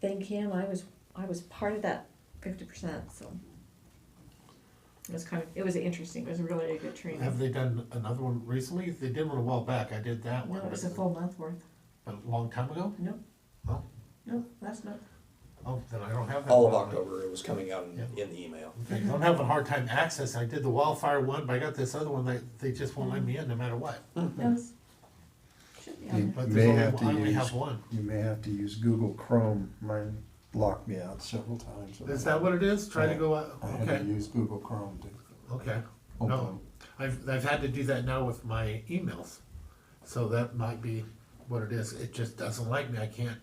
thank him, I was, I was part of that fifty percent, so. It was kind of, it was interesting, it was really a good Have training. they done another one recently? They did one a while back, I did that No, one. it was a full month worth, A long time ago? no, Oh, no, last month. oh, then I don't have that. All of one. October, it was coming out in, in the email. Okay, I'm having a hard time accessing. I did the wildfire one, but I got this other one that they just won't let me in no matter what. That was, should be on You there. But may there's have only- to I only use- have one. You may have to use Google Chrome. Mine blocked me out several times. Is that what it is? Try to go out, I had to okay, use Google Chrome to. okay. Okay. No, I've, I've had to do that now with my emails. So that might be what it is. It just doesn't like me. I can't,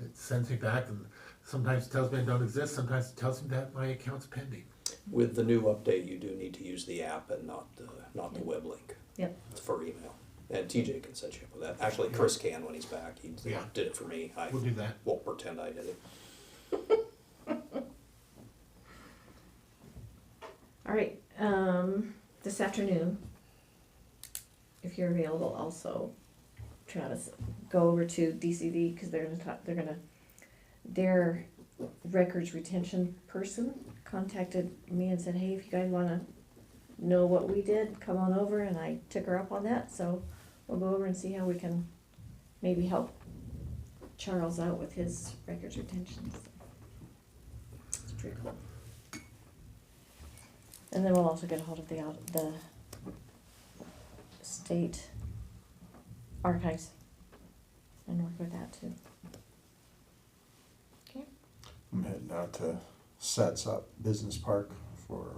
it sends me back and sometimes it tells me I don't exist, sometimes it tells me that my account's pending. With the new update, you do need to use the app and not the, not the web link Yep, for email. And TJ can set you up with that. Actually, Chris can when he's back. He Yeah. did it for me. I We'll do that. won't pretend I did it. all right, um, this afternoon, if you're available also, Travis, go over to DCD, cause they're gonna talk, they're gonna, their records retention person contacted me and said, hey, if you guys wanna know what we did, come on over, and I took her up on that, so we'll go over and see how we can maybe help Charles out with his records retention. so. It's pretty cool. And then we'll also get a hold of the, aud- the state archives and work with that too. Okay, I'm heading out to Sets Up Business Park for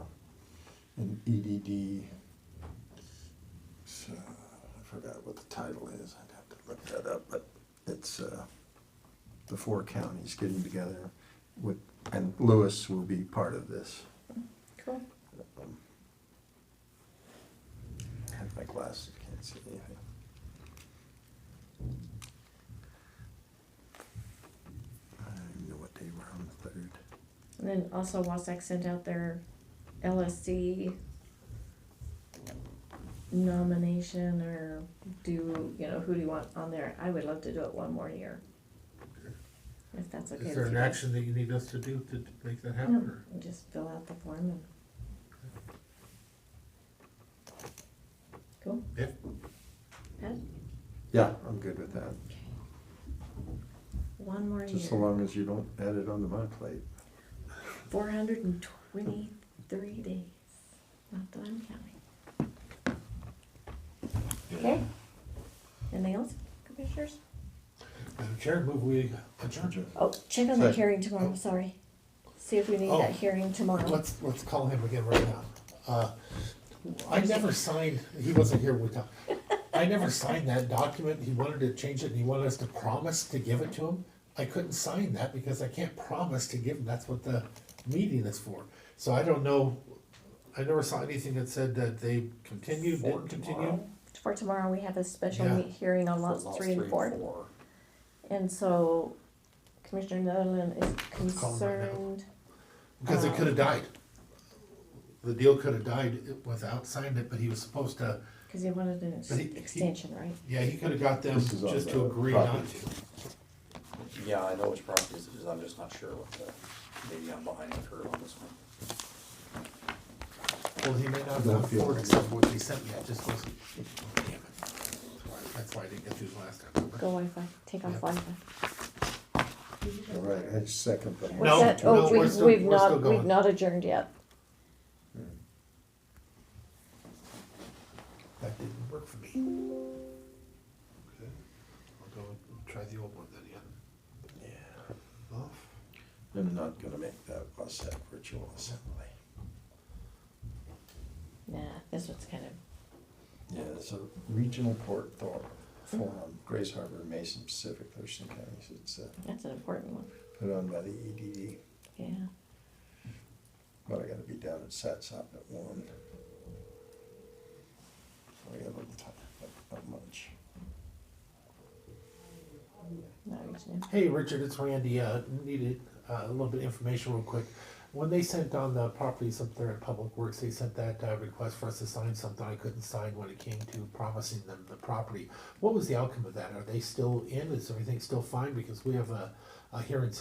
an E EDD. So, uh, I forgot what the title is. I'd have to look that up, but it's, uh, the four counties getting together with, and Lewis will be part of this. cool. Um, I have my glasses, can't see anything. I don't even know what day we're on, the third. And then also Wasack sent out their LSC nomination or do, you know, who do you want on there? I would love to do it one more year. If that's okay with you. Is there an guys. action that you need us to do to make that happen No, or? you Just fill out the form and. Cool, Yeah, Pat? Yeah, I'm good with that, Okay. One more just so year, long as you don't add it onto my plate. four hundred and twenty-three days, not that I'm counting. Okay, anything else, commissioners? Madam Chair, move we adjourn. Oh, check on the Sorry. hearing tomorrow, sorry, see if we need that Oh. hearing tomorrow. Let's, let's call him again right now. Uh, I never signed, he wasn't here with us. I never signed that document. He wanted to change it and he wanted us to promise to give it to him. I couldn't sign that because I can't promise to give him. That's what the meeting is for. So I don't know, I never saw anything that said that they continued, For didn't continue. tomorrow? For tomorrow, we have a special Yeah. meet hearing on For lots three and four. four. And so Commissioner Netherland is call him right now. concerned, Because it could have died. The deal could have died without signing it, but he was supposed to, cause he wanted an ex- But he- he- extension, right? yeah, he could have got them This is on just the to agree not property. to. Yeah, I know which properties it is. I'm just not sure what the, maybe I'm behind the curve on this one. Well, he may not have Don't gone feel forward it. except for what they sent me, I just wasn't. Damn it. That's why I didn't get these last time. Go Wi-Fi, take off Yep. Wi-Fi. All right, I second that. No, What's that? no, Oh, we're we've, still- we've we're still not, we've going. not adjourned yet. That didn't work for me. Okay, I'll go and try the old one then, yeah. Yeah, Well, I'm not gonna make that WhatsApp virtual assembly. Nah, this one's kind of, Yeah, it's a regional port thor- forum, Grace Harbor, Mason Pacific, there's some counties, it's, uh, that's an important one, put on by the EDD. yeah. But I gotta be down at Satsop at one. So I got a little time, but not much. Not reaching it. Hey, Richard, it's Randy, uh, needed, uh, a little bit of information real quick. When they sent on the properties up there at Public Works, they sent that, uh, request for us to sign something I couldn't sign when it came to promising them the property. What was the outcome of that? Are they still in? Is everything still fine? Because we have a, a hearing